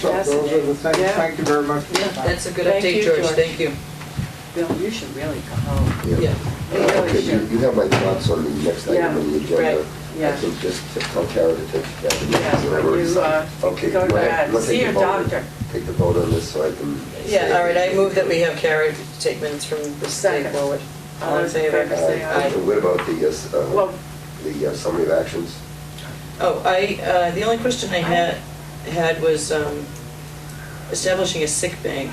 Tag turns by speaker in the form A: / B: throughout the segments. A: So
B: Yes.
A: those are the things,
B: Yeah.
A: thank you very much. for your
C: Yeah,
A: time.
C: that's a good
B: Thank
C: update,
B: you,
C: George,
B: George.
C: thank you.
B: Bill, you should really go home.
C: Yeah.
B: You really
D: Okay, You
B: should.
D: you have my thoughts on the next item on the
B: Yeah, right,
D: agenda.
B: yeah.
D: I think just to tell Kara to take care of it.
B: Yeah,
D: So
B: when
D: I've already
B: you,
D: signed.
B: uh,
D: Okay,
B: go to
D: well,
B: bed,
D: let's
B: see
D: take the
B: your
D: vote.
B: doctor.
D: Take the vote on this so I can. say-
C: Yeah, all right, I move that we have Kara take minutes from this day
B: Second.
C: forward.
B: All those in
D: Uh,
B: favor say aye.
D: and What about the, uh, s- uh,
B: Well-
D: the uh, summary of actions?
C: Oh, I, uh, the only question I had, had was um, establishing a sick bank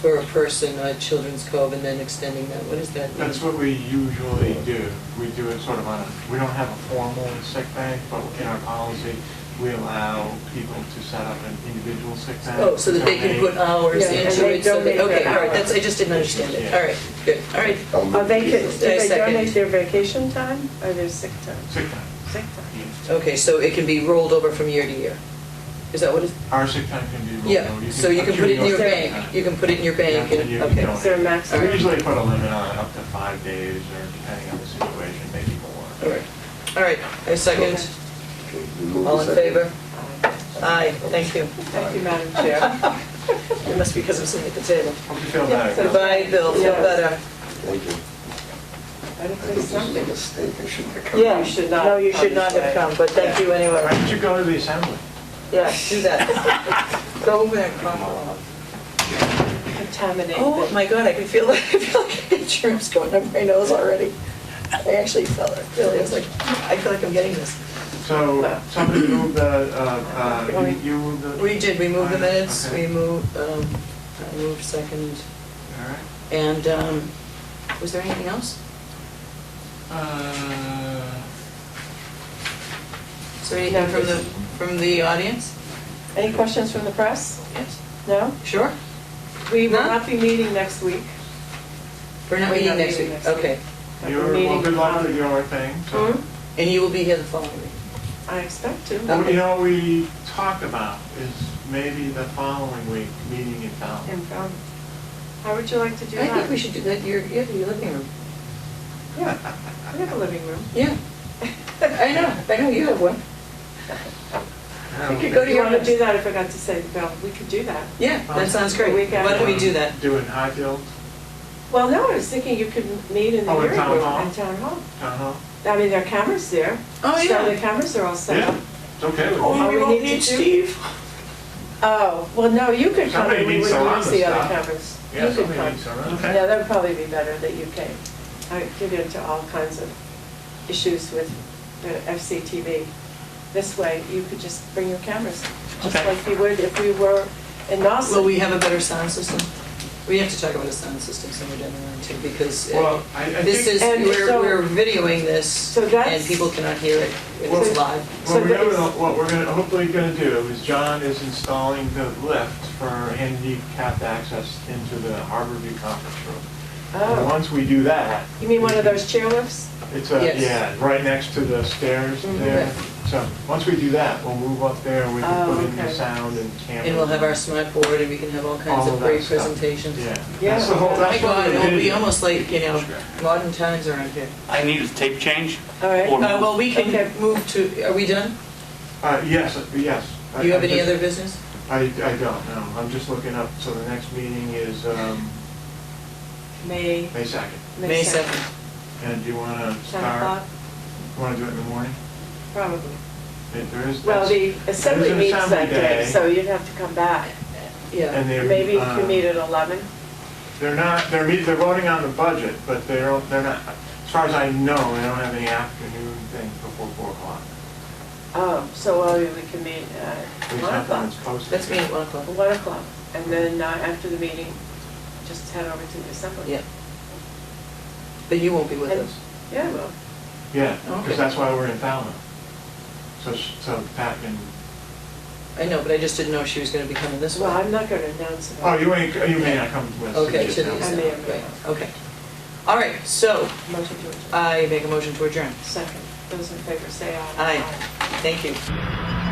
C: for a person at Children's Cove and then extending that, what does that mean?
E: That's what we usually do. We do it sort of on, a we don't have a formal sick bank, but in our policy, we allow people to set up an individual sick bank.
C: Oh, so that they can put hours
B: Yeah, and
C: into
B: they
C: it, so that,
B: donate
C: okay,
B: their
C: all right, that's, I
B: hours.
C: just didn't understand it,
E: Yeah.
C: all right, good, all right.
D: I'll
B: Are
D: move
B: they,
D: to-
B: do
C: I
B: they
C: second.
B: donate their vacation time or their sick time?
E: Sick time.
B: Sick time.
C: Okay, so it can be rolled over from year to year? Is that what it's?
E: Our sick time can be. rolled over.
C: Yeah, so you can put it in your
B: your
C: bank, you can put it in your bank,
E: Yeah,
C: and,
E: you can
C: okay.
E: donate.
B: Is there a maximum?
E: We usually put a limit on up to five days, or depending on the situation, maybe
C: All
E: more.
C: right, all right, I second,
D: Okay, we move
C: all
D: to
C: in
D: second.
C: favor? Aye, thank you.
B: Thank you, Madam Chair.
C: It must be because I'm sitting at the table.
E: Hope you feel
B: Yeah,
E: better.
B: so-
C: Goodbye, Bill, feel
B: Yes.
C: better.
D: Thank you.
B: I
D: I
B: don't
D: think
B: think
D: this is a
B: something.
D: mistake, I shouldn't have come.
C: Yeah,
B: You should not
C: No, you
B: come
C: should not
B: this
C: have
B: way.
C: come, but thank you
E: Why
C: anyway.
E: don't you go to the assembly?
C: Yeah, do that. Go over there and call.
B: Contaminate.
C: Oh,
B: the-
C: my God, I can feel, I feel like a germ's going up my nose already. I actually felt it, really, I was like, I feel like I'm getting this.
E: So somebody moved the, uh, uh, you- you moved the.
C: We did, we moved the minutes, we
E: Okay.
C: moved, um, I moved second,
E: All right.
C: and, um, was there anything else?
E: Uh,
C: Is there anything from the, from the audience?
B: Any questions from the press?
C: Yes,
B: No?
C: sure?
B: We will
C: None?
B: not be meeting next week.
C: We're not
B: We're
C: meeting
B: not
C: next
B: meeting
C: week,
B: next week.
C: okay.
B: But we're
E: You're, well,
B: meeting
E: good luck
B: on-
E: with your thing. so-
B: Hmm?
C: And you will be here the following week.
B: I expect to.
E: Well, You know, we talked about is maybe the following week, meeting in town.
B: And, um, How would you like to do
C: I
B: that?
C: think we should do that, your, yeah, your living room.
B: Yeah, we have a living room.
C: Yeah, I know, I know you have one.
E: Um,
C: could go to
B: You
C: your
B: want to
C: house.
B: do that, I forgot to say, Bill, we could do that.
C: Yeah, that sounds
B: The
C: great.
B: week
C: Why don't we do that?
E: Do it in Highfield,
B: Well, no, I was thinking you could meet in the
E: Oh, in
B: hearing
E: town
B: room
E: hall?
B: in town hall.
E: town hall?
B: I mean, there are cameras there.
C: Oh,
B: So the
C: yeah.
B: cameras are all set
E: Yeah,
B: up.
E: it's okay with
B: Oh,
E: me.
B: All we need to do- Oh, well, no, you could come
E: Somebody
B: and we
E: needs
B: would
E: to run
B: use the
E: this
B: other
E: stuff.
B: cameras. You
E: Yeah,
B: could
E: somebody
B: come.
E: needs to run. Okay.
B: Yeah, that would probably be better that you came. I get into all kinds of issues with the FCTV. This way, you could just bring your cameras, just
E: Okay.
B: like you would if we were in Nauset.
C: Will we have a better sound system? We have to talk about a sound system somewhere down the line too, because uh,
E: Well, I, I think.
C: this is,
B: And so-
C: we're, we're videoing this
B: So
C: and
B: that's-
C: people cannot hear it.
E: Well-
C: It's live.
B: so
E: What we're
B: that is-
E: gonna, what we're gonna, hopefully gonna do is John is installing the lift for handicapped access into the Harborview Conference Room. And
B: Oh,
E: once we do that.
B: you mean one of
E: we-
B: those chairlifts?
E: It's a,
C: Yes.
E: yeah, right next to the stairs
B: Mhm.
E: there. So, once we do that, we'll move up there, we
B: Oh,
E: can put in the
B: okay.
E: sound and camera.
C: And we'll have our smart board and we can have all kinds
E: All
C: of
E: of
C: great
E: that stuff.
C: presentations.
E: Yeah.
B: Yeah.
E: That's the whole,
B: Oh
C: My
E: that's what
C: God,
E: we're
C: it will be
E: doing.
C: almost like, you know, modern times around here.
F: I need a tape change.
B: All right.
F: Or-
C: Uh, well, we
B: Okay.
C: can move to, are we done?
E: Uh, yes, uh, yes. I-
C: Do you have
E: I'm
C: any
E: just-
C: other business?
E: I, I don't, know. I'm just looking up, so the next meeting is, um,
B: May,
E: May second.
C: May
B: May
C: 2nd.
B: 7th.
E: And do you wanna
B: 10 o'clock,
E: start, you wanna do it in the morning?
B: probably.
E: There- There is.
B: Well, the
E: that's- there's
B: assembly
E: an
B: meets
E: assembly
B: that day,
E: day,
B: so you'd have to come back.
C: Yeah.
E: And they're.
B: Maybe you
E: uh,
B: can meet at 11.
E: They're not, they're, meet- they're voting on the budget, but they don't, they're not, as far as I know, they don't have any afternoon things before four o'clock.
B: Oh, so uh, we can meet at
E: At
B: 1
E: least not that
B: o'clock.
E: it's posted.
C: That's me at 1 o'clock.
B: 1 o'clock, and then uh, after the meeting, just head over to the assembly.
C: Yeah. But you won't be with
B: And-
C: us.
B: Yeah, well,
E: Yeah,
C: Okay.
E: because that's why we're in Falmouth. So, sh- so Pat can,
C: I know, but I just didn't know if she was gonna be coming this
B: well,
C: way.
B: I'm not going to announce it.
E: oh, you ain't, you may not come with us.
C: Okay,
E: You
C: to the
E: just-
B: I may have
C: assembly,
B: been.
C: right, okay. All right, so
B: Motion
C: Uh,
B: to adjourn.
C: I make a motion to adjourn.
B: Second, those in favor say aye.
C: Aye. Thank you.